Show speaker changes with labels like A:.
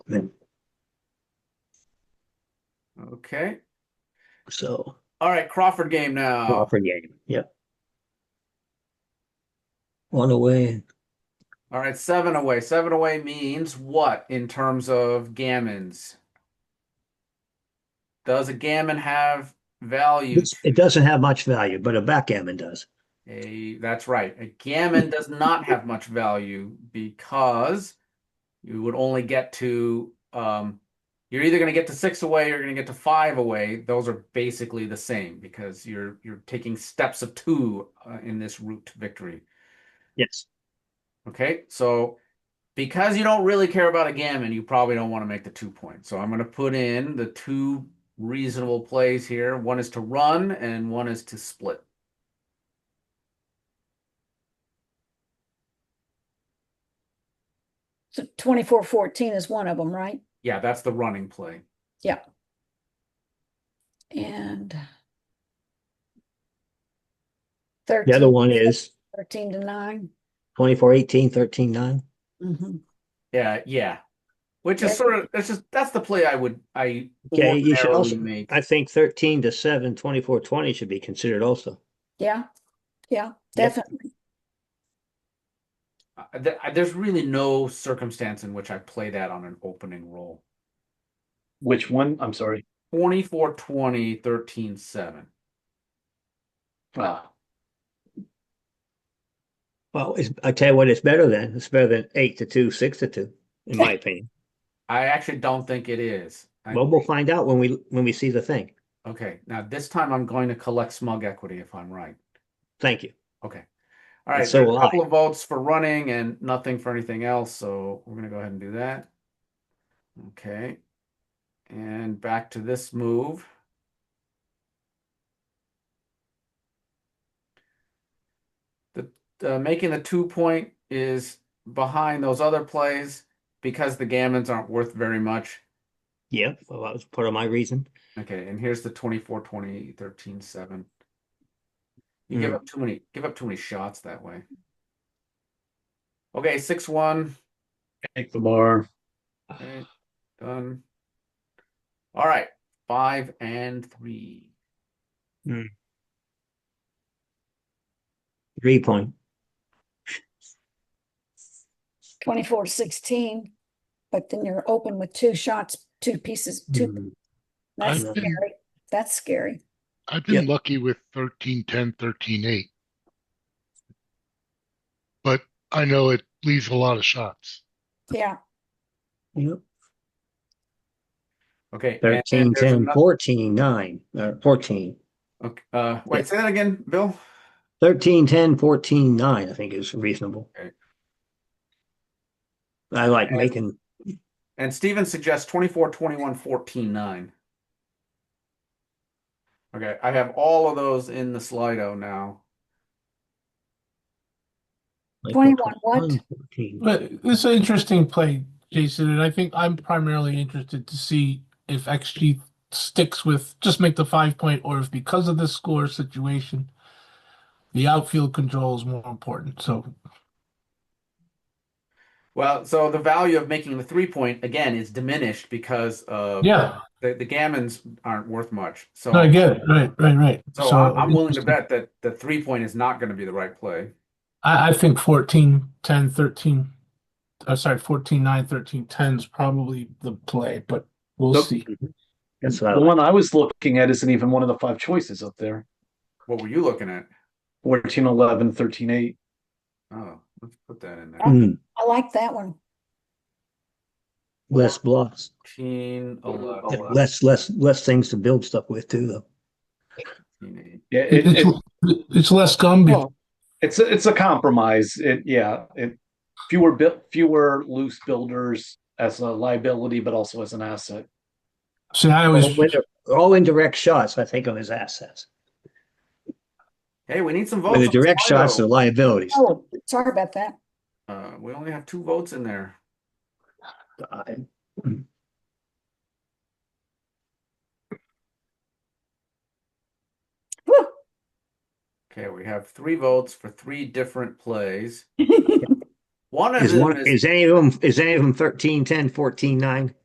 A: Okay.
B: So
A: All right, Crawford game now.
B: Crawford game. Yep. One away.
A: All right, seven away. Seven away means what in terms of gammons? Does a gammon have value?
B: It's- It doesn't have much value, but a backgammon does.
A: A, that's right. A gammon does not have much value because you would only get to um, you're either going to get to six away or you're going to get to five away. Those are basically the same because you're you're taking steps of two uh, in this route to victory.
B: Yes.
A: Okay, so because you don't really care about a gammon, you probably don't want to make the two point. So I'm going to put in the two reasonable plays here. One is to run and one is to split.
C: So twenty-four fourteen is one of them, right?
A: Yeah, that's the running play.
C: And
B: The
C: thirteen,
B: other one is
C: thirteen to nine.
B: 24 18, 13 9.
C: Mhm.
A: Yeah, yeah. Which is
C: Yeah.
A: sort of that's just that's the play I would I
B: Okay, you should
A: ordinarily
B: also-
A: make.
B: I think 13 to 7, 24 20 should be considered also.
C: Yeah, yeah,
B: Yep.
C: definitely.
A: I- th- I- there's really no circumstance in which I play that on an opening roll.
D: Which one? I'm sorry.
A: 24 20, 13 7.
D: Ah,
B: Well, it's, I tell you what, it's better than. It's better than 8 to 2, 6 to 2, in my opinion.
A: I actually don't think it is. I
B: Well, we'll
A: think-
B: find out when we when we see the thing.
A: Okay, now this time I'm going to collect smug equity if I'm right.
B: Thank you.
A: Okay. All right,
B: so
A: there's a
B: will I.
A: couple of votes for running and nothing for anything else, so we're gonna go ahead and do that. Okay. And back to this move. The uh, making the two point is behind those other plays because the gammons aren't worth very much.
B: Yeah, well, that was part of my reason.
A: Okay, and here's the 24, 20, 13, 7. You give
B: Mm.
A: up too many give up too many shots that way. Okay, 6 1.
D: take the bar.
A: Okay, done. All right, 5 and 3.
B: Three point.
C: Twenty-four sixteen, but then you're open with two shots, two pieces, two.
D: Mm,
C: That's
B: I've
E: been-
C: scary. That's scary.
E: I've been lucky with 13, 10, 13, 8. But I know it leaves a lot of shots.
C: Yeah,
B: Yep.
A: Okay, and then
B: 13,
A: there's
B: 10,
A: another-
B: 14, 9, uh, 14.
A: okay, uh, wait, say that again, Bill.
B: 13, 10, 14, 9, I think is reasonable.
A: Okay.
B: I like
A: And-
B: making,
A: And Steven suggests 24, 21, 14, 9. Okay, I have all of those in the Slido now.
B: like,
C: 21, what?
B: 14.
F: But it's an interesting play, Jason, and I think I'm primarily interested to see if XG sticks with just make the five point or if because of the score situation, the outfield control is more important. So
A: Well, so the value of making the three point again is diminished because of
F: yeah,
A: the, the gammons aren't worth much. So
F: no, I get it. Right, right, right.
A: so I'm, I'm willing to bet that the three point is not going to be the right play.
F: I, I think 14, 10, 13, uh, sorry, 14, 9, 13, 10 is probably the play, but we'll
D: Nope.
F: see.
B: That's what I
D: The
B: like.
D: one I was looking at isn't even one of the five choices up there.
A: What were you looking at?
D: 14, 11, 13, 8.
A: Oh, let's put that in
F: Hmm.
A: there.
B: Mm,
C: I like that one.
B: Hmm, less blocks,
A: 14, 11,
D: Yeah, Wow.
B: less, less, less things to build stuff with too, though.
A: 14, eight.
D: Yeah, it,
F: it's,
D: it,
F: it's less Gumby.
D: Well, it's a, it's a compromise. It yeah, it fewer bu- fewer loose builders as a liability, but also as an asset.
F: See, I always
B: All indir- All indirect shots, I think, of his assets.
A: Hey, we need some votes.
B: Where the
A: on
B: direct shots are
A: Slido.
B: liabilities.
C: Oh, sorry about that.
A: Uh, we only have two votes in there.
B: I-
C: Whew.
A: Okay, we have three votes for three different plays. One of
B: Is
A: them
B: one,
A: is
B: is any of them, is any of them 13, 10, 14, 9?